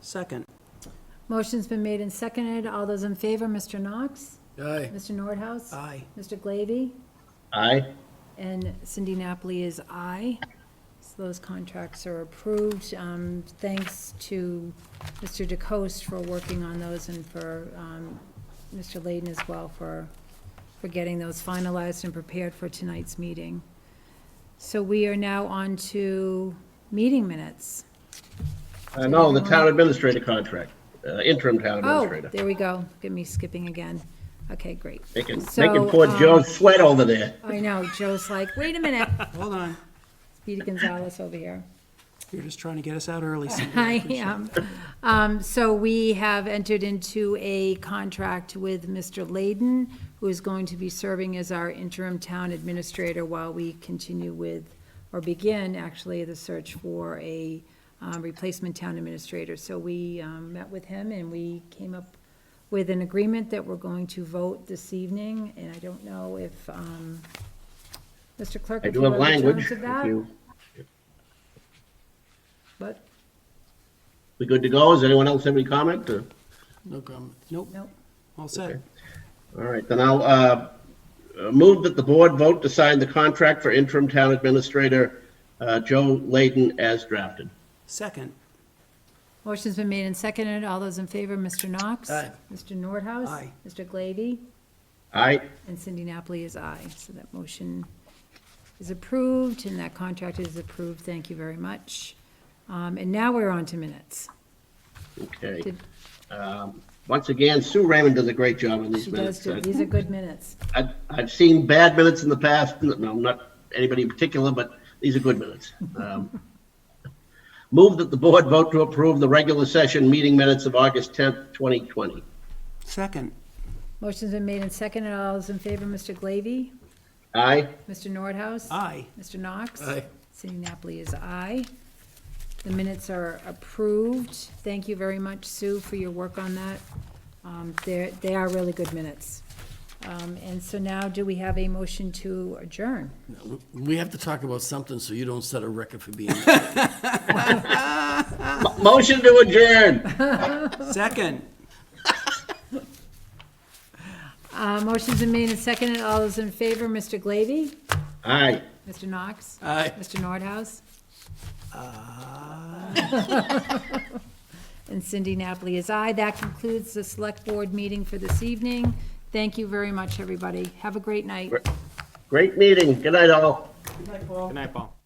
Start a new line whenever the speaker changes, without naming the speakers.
Second.
Motion's been made and seconded. All those in favor, Mr. Knox?
Aye.
Mr. Nordhaus?
Aye.
Mr. Glavy?
Aye.
And Cindy Napoli is aye. So those contracts are approved. Um, Thanks to Mr. DeCoste for working on those and for um, Mr. Layden as well for, for getting those finalized and prepared for tonight's meeting. So we are now on to meeting minutes.
Uh, No, the town administrator contract, uh, interim town
Oh,
administrator.
there we go. Get me skipping again. Okay, great.
Making,
So,
making poor
um,
Joe sweat over there.
I know, Joe's like, wait a minute,
Hold on.
Peter Gonzalez over here.
You're just trying to get us out early. Cindy.
I am. Um, So we have entered into a contract with Mr. Layden, who is going to be serving as our interim town administrator while we continue with, or begin, actually, the search for a um, replacement town administrator. So we um, met with him, and we came up with an agreement that we're going to vote this evening, and I don't know if, um, Mr. Clerk,
I
if
do
you have
have
the
language.
terms of
if
that?
you-
But,
We good to go? Does anyone else have any comment? Uh,
No comment. Nope,
no,
all set.
All right, then I'll uh, uh, move that the board vote to sign the contract for interim town administrator uh, Joe Layden as drafted.
Second.
Motion's been made and seconded. All those in favor, Mr. Knox?
Aye.
Mr. Nordhaus?
Aye.
Mr. Glavy?
Aye.
And Cindy Napoli is aye. So that motion is approved and that contract is approved. Thank you very much. Um, And now we're on to minutes.
Okay.
Did-
Um, Once again, Sue Raymond does a great job on these
She does,
minutes.
do- these are good minutes.
I've, I've seen bad minutes in the past, no, not anybody in particular, but these are good minutes. Um, Move that the board vote to approve the regular session meeting minutes of August 10th, 2020.
Second.
Motion's been made and seconded. All those in favor, Mr. Glavy?
Aye?
Mr. Nordhaus?
Aye.
Mr. Knox?
Aye.
Cindy Napoli is aye. The minutes are approved. Thank you very much, Sue, for your work on that. Um, They're, they are really good minutes. Um, And so now, do we have a motion to adjourn?
We have to talk about something so you don't set a record for being.
Mo- Motion to adjourn.
Second.
Uh, Motion's been made and seconded. All those in favor, Mr. Glavy?
Aye.
Mr. Knox?
Aye.
Mr. Nordhaus?
Ah.
And Cindy Napoli is aye. That concludes the Select Board meeting for this evening. Thank you very much, everybody. Have a great night.
Great meeting. Good night, all.
Good night, Paul.